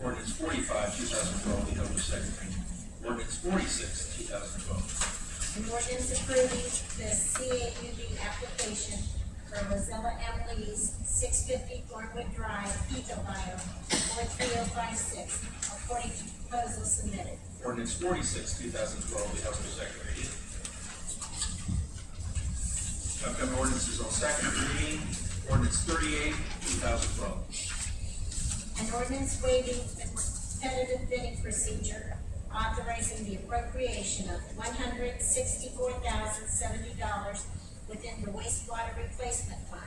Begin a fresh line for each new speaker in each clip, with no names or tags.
forty-five, two thousand twelve, be held as second reading. Ordinance forty-six, two thousand twelve.
An ordinance approving the CAUB application for Rosella M. Lee's six fifty Glenwood Drive, Eagle Bio, four three oh five six, according to proposal submitted.
Ordinance forty-six, two thousand twelve, be held as second reading. Upcoming ordinances on second reading, ordinance thirty-eight, two thousand twelve.
An ordinance waiving the competitive bidding procedure, authorizing the appropriation of one hundred sixty-four thousand seventy dollars within the wastewater replacement fund,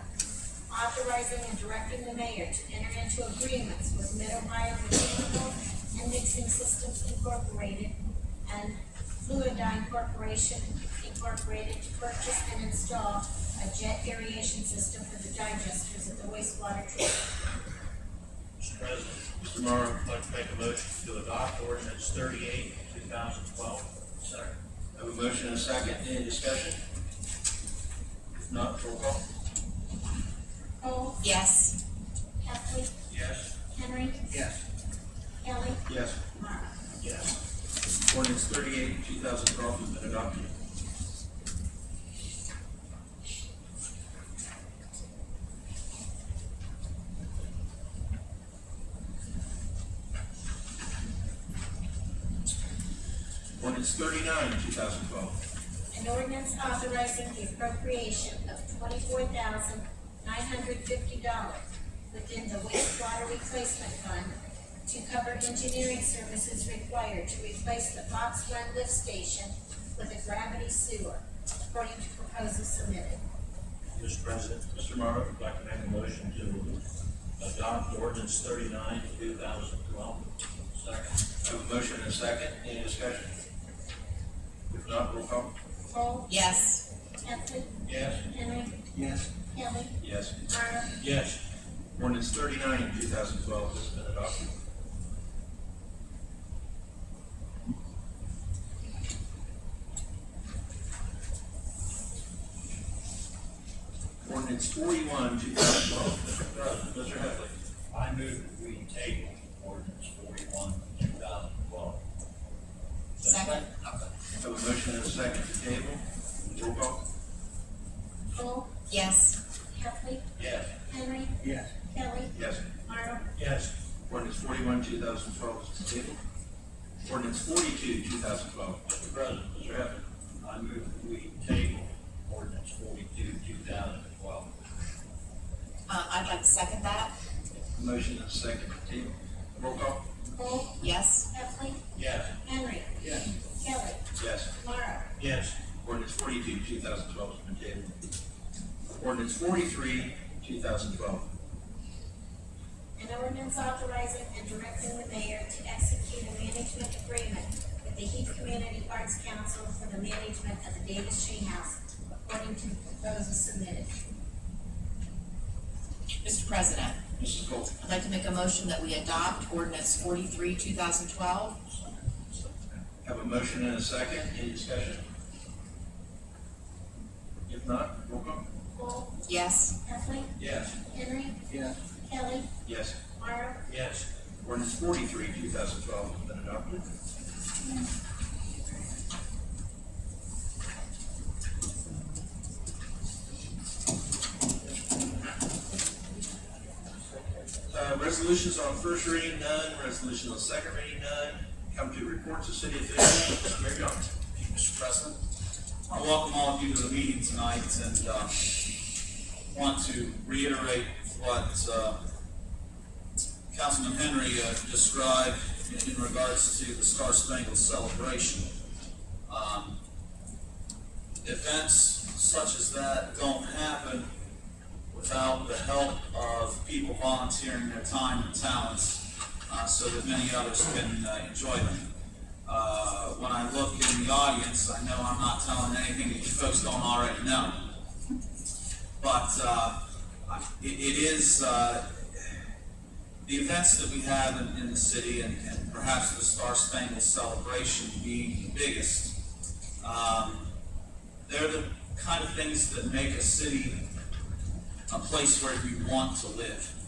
authorizing and directing the mayor to enter into agreements with Mid-Ohio Mechanical and Mixing Systems Incorporated and Fluidine Corporation Incorporated to purchase and install a jet aeration system for the digesters at the wastewater treatment
Mr. President, Mr. Morrow, I'd like to make a motion to adopt ordinance thirty-eight, two thousand twelve. Second.
Have a motion and a second, any discussion? If not, roll call.
Cole?
yes,
Heffley?
Yes.
Henry?
Yes.
Kelly?
Yes.
Mara?
Yes.
Ordinance thirty-eight, two thousand twelve has been adopted. Ordinance thirty-nine, two thousand twelve.
An ordinance authorizing the appropriation of twenty-four thousand nine hundred fifty dollars within the wastewater replacement fund to cover engineering services required to replace the Fox Run lift station with a gravity sewer, according to proposal submitted.
Mr. President, Mr. Morrow, I'd like to make a motion to adopt ordinance thirty-nine, two thousand twelve. Second.
I have a motion and a second, any discussion? If not, roll call.
Cole?
yes,
Heffley?
Yes.
Henry?
Yes.
Kelly?
Yes.
Mara?
Yes.
Ordinance thirty-nine, two thousand twelve has been adopted. Ordinance forty-one, two thousand twelve, Mr. President, Mr. Heffley.
I move that we table ordinance forty-one, two thousand twelve.
second,
Have a motion and a second to table. Roll call.
Cole?
yes,
Heffley?
Yes.
Henry?
Yes.
Kelly?
Yes.
Mara?
Yes.
Ordinance forty-one, two thousand twelve is to table. Ordinance forty-two, two thousand twelve.
Mr. President, Mr. Heflin, I move that we table ordinance forty-two, two thousand and twelve.
uh, I'd like to second that,
Motion and a second to table. Roll call.
Cole?
yes,
Heffley?
Yes.
Henry?
Yes.
Kelly?
Yes.
Mara?
Yes.
Ordinance forty-two, two thousand twelve has been tabled. Ordinance forty-three, two thousand twelve.
An ordinance authorizing and directing the mayor to execute a management agreement with the Heath Community Arts Council for the management of the Davis Tree House according to the proposal submitted.
Mr. President,
Mrs. Cole.
I'd like to make a motion that we adopt ordinance forty-three, two thousand twelve,
Have a motion and a second, any discussion? If not, roll call.
Cole?
yes,
Heffley?
Yes.
Henry?
Yes.
Kelly?
Yes.
Mara?
Yes.
Ordinance forty-three, two thousand twelve has been adopted. Uh, resolutions on first reading, none. Resolution on second reading, none. Come to reports of city officials. Mayor Johnson.
Thank you, Mr. President. I welcome all of you to the meeting tonight and uh, want to reiterate what uh, Councilman Henry uh, described in- in regards to the Star Spangled Celebration. Um, Events such as that don't happen without the help of people volunteering their time and talents uh, so that many others can uh, enjoy them. Uh, when I look in the audience, I know I'm not telling anything that you folks don't already know. But uh, I- it, it is uh, the events that we have in, in the city, and, and perhaps the Star Spangled Celebration being the biggest. Um, they're the kind of things that make a city a place where you want to live.